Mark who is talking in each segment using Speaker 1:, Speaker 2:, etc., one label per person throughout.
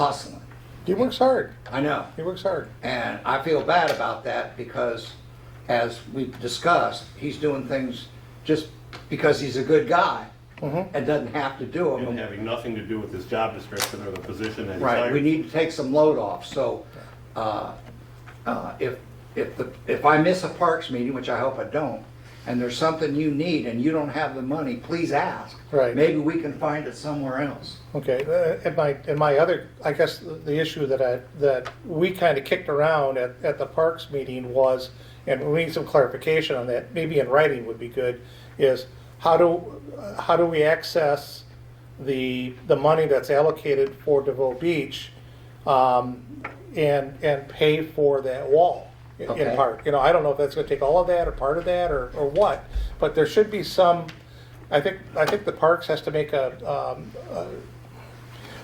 Speaker 1: hustling.
Speaker 2: He works hard.
Speaker 1: I know.
Speaker 2: He works hard.
Speaker 1: And I feel bad about that because, as we discussed, he's doing things just because he's a good guy
Speaker 2: Mm-hmm.
Speaker 1: and doesn't have to do
Speaker 3: And
Speaker 1: them.
Speaker 3: having nothing to do with his job description or the position that he's
Speaker 1: Right, we
Speaker 3: hired.
Speaker 1: need to take some load off, so, uh, uh, if, if, the if I miss a Parks meeting, which I hope I don't, and there's something you need and you don't have the money, please ask.
Speaker 2: Right.
Speaker 1: Maybe we can find it somewhere else.
Speaker 2: Okay, uh, and my, and my other, I guess, the- the issue that I, that we kind of kicked around at, at the Parks meeting was, and we need some clarification on that, maybe in writing would be good, is how do, uh, how do we access the, the money that's allocated for DeVoe Beach um, and, and pay for that wall in- in
Speaker 1: Okay.
Speaker 2: part? You know, I don't know if that's gonna take all of that or part of that or, or what, but there should be some, I think, I think the Parks has to make a, um,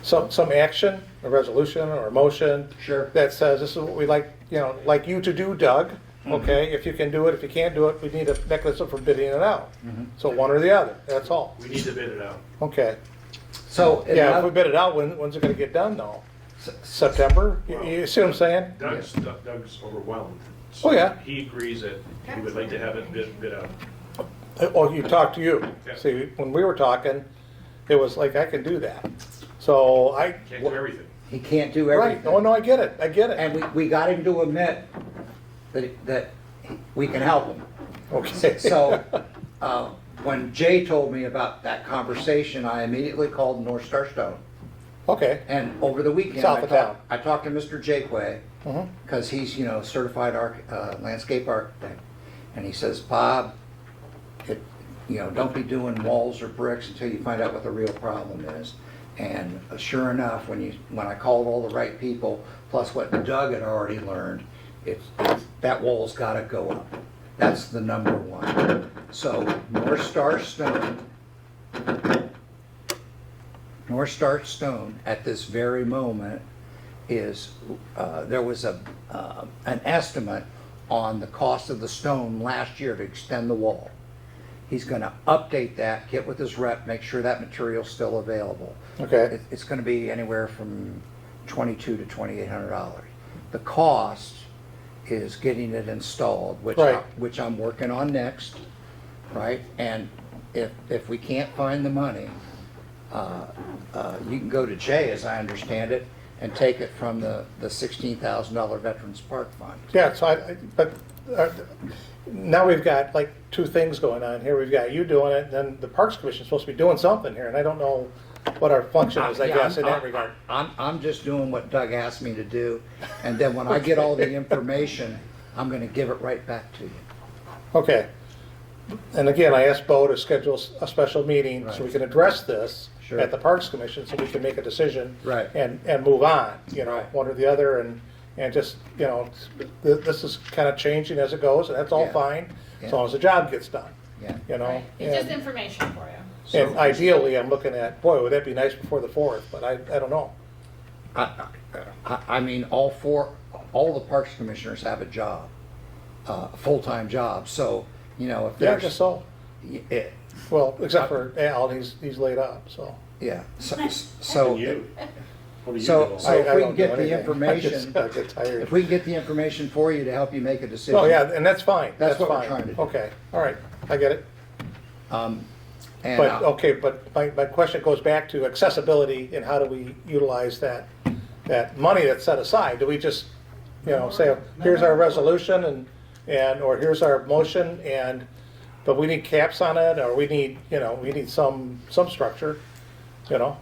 Speaker 2: some, some action, a resolution or a motion.
Speaker 1: Sure.
Speaker 2: That says, this is what we like, you know, like you to do, Doug,
Speaker 1: Mm-hmm.
Speaker 2: okay? If you can do it, if you can't do it, we need a mechanism for bidding it out.
Speaker 1: Mm-hmm.
Speaker 2: So one or the other, that's all,
Speaker 3: We need to bid it out.
Speaker 2: okay?
Speaker 1: So. in
Speaker 2: Yeah, if
Speaker 1: other-
Speaker 2: we bid it out, when, when's it gonna get done though?
Speaker 1: s-
Speaker 2: September? You- You see what I'm saying?
Speaker 4: Doug's, Doug- Doug's overwhelmed.
Speaker 2: Oh, yeah.
Speaker 4: He agrees that he would like to have it bid, bid out.
Speaker 2: Or Oh, you talk to you.
Speaker 4: Yeah.
Speaker 2: See, when we were talking, it was like, I can do that. So I,
Speaker 4: Can't do everything.
Speaker 1: He can't do everything.
Speaker 2: right, oh no, I get it, I get it.
Speaker 1: And we, we got him to admit that, that we can help him.
Speaker 2: Okay.
Speaker 1: So, uh, when Jay told me about that conversation, I immediately called North Star Stone.
Speaker 2: Okay,
Speaker 1: And over the weekend,
Speaker 2: South
Speaker 1: I
Speaker 2: of town. Mm-hmm.
Speaker 1: talked, I talked to Mr. Jakeway, because he's, you know, certified arch, uh, landscape architect. And he says, Bob, it, you know, don't be doing walls or bricks until you find out what the real problem is. And uh, sure enough, when you, when I called all the right people, plus what Doug had already learned, it's, it's- that wall's gotta go up. That's the number one. So North Star Stone North Star Stone at this very moment is, uh, there was a, uh, an estimate on the cost of the stone last year to extend the wall. He's gonna update that, get with his rep, make sure that material's still available.
Speaker 2: Okay.
Speaker 1: It- It's gonna be anywhere from twenty-two to twenty-eight hundred dollars. The cost is getting it installed, which, I-
Speaker 2: Right.
Speaker 1: which I'm working on next, right? And if, if we can't find the money, uh, you can go to Jay, as I understand it, and take it from the, the sixteen thousand dollar Veterans Park Fund.
Speaker 2: Yeah, so I, I- but uh, now we've got like two things going on here. We've got you doing it, and then the Parks Commission's supposed to be doing something here, and I don't know what our function is, I
Speaker 1: Yeah,
Speaker 2: guess, in
Speaker 1: I'm-
Speaker 2: that regard.
Speaker 1: I'm, I'm just doing what Doug asked me to do, and then when I get all the information, I'm gonna give it right back to you.
Speaker 2: Okay. And again, I asked Bo to schedule s- a special meeting so we
Speaker 1: Right.
Speaker 2: can address this
Speaker 1: Sure.
Speaker 2: at the Parks Commission, so we can make a decision.
Speaker 1: Right.
Speaker 2: And, and move on, you know,
Speaker 1: Right.
Speaker 2: one or the other, and, and just, you know, th- this is kind of changing as it goes, and that's all
Speaker 1: Yeah.
Speaker 2: fine,
Speaker 1: Yeah.
Speaker 2: as long as the job gets done,
Speaker 1: Yeah.
Speaker 2: you know?
Speaker 5: It's just
Speaker 2: and-
Speaker 5: information for you.
Speaker 1: So-
Speaker 2: And ideally, I'm looking at, boy, would that be nice before the fourth, but I, I don't know.
Speaker 1: I, I, I mean, all four, all the Parks Commissioners have a job, uh, a full-time job, so, you know, if
Speaker 2: Yeah,
Speaker 1: there's.
Speaker 2: just so,
Speaker 1: y- it-
Speaker 2: well, except for Al, he's, he's laid up, so.
Speaker 1: Yeah, so, so.
Speaker 3: And you? What do you
Speaker 1: So-
Speaker 3: do?
Speaker 1: so- if
Speaker 2: I- I
Speaker 1: we can
Speaker 2: don't know
Speaker 1: get the
Speaker 2: anything.
Speaker 1: information-
Speaker 2: I just- I get tired.
Speaker 1: If we can get the information for you to help you make a decision.
Speaker 2: Oh, yeah, and that's fine,
Speaker 1: That's
Speaker 2: that's
Speaker 1: what we're
Speaker 2: fine.
Speaker 1: trying to do.
Speaker 2: Okay, all right, I get it.
Speaker 1: And,
Speaker 2: But,
Speaker 1: uh,
Speaker 2: okay, but my, my question goes back to accessibility and how do we utilize that, that money that's set aside? Do we just, you know, say, here's our resolution and, and, or here's our motion and, but we need caps on it, or we need, you know, we need some, some structure, you know?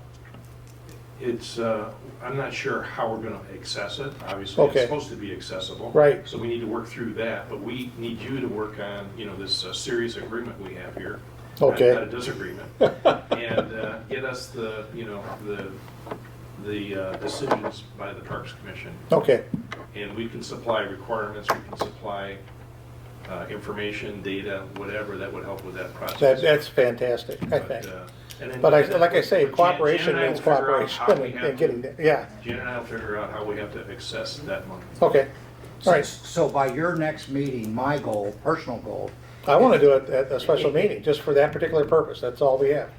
Speaker 4: It's, uh, I'm not sure how we're gonna access it. Obviously,
Speaker 2: Okay.
Speaker 4: it's supposed to be accessible.
Speaker 2: Right.
Speaker 4: So we need to work through that, but we need you to work on, you know, this uh, serious agreement we have here. not-
Speaker 2: Okay.
Speaker 4: Not a disagreement. And uh, get us the, you know, the, the uh, decisions by the Parks Commission.
Speaker 2: Okay,
Speaker 4: And we can supply requirements, we can supply uh, information, data, whatever that would help with that process.
Speaker 2: that, that's fantastic, I
Speaker 4: But,
Speaker 2: think.
Speaker 4: uh, and then-
Speaker 2: But I, like I say,
Speaker 4: Jan- Jan and
Speaker 2: cooperation
Speaker 4: I will
Speaker 2: means
Speaker 4: figure out how we
Speaker 2: cooperation
Speaker 4: have
Speaker 2: and
Speaker 4: to-
Speaker 2: getting, there. yeah,
Speaker 4: Jan and I will figure out how we have to access that money.
Speaker 2: okay, all right.
Speaker 1: So by your next meeting, my goal, personal goal,
Speaker 2: I want to do it at a special meeting, just for that particular purpose, that's all we have.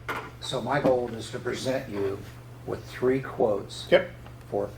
Speaker 1: so my goal is to present you with three quotes
Speaker 2: Yep,
Speaker 1: for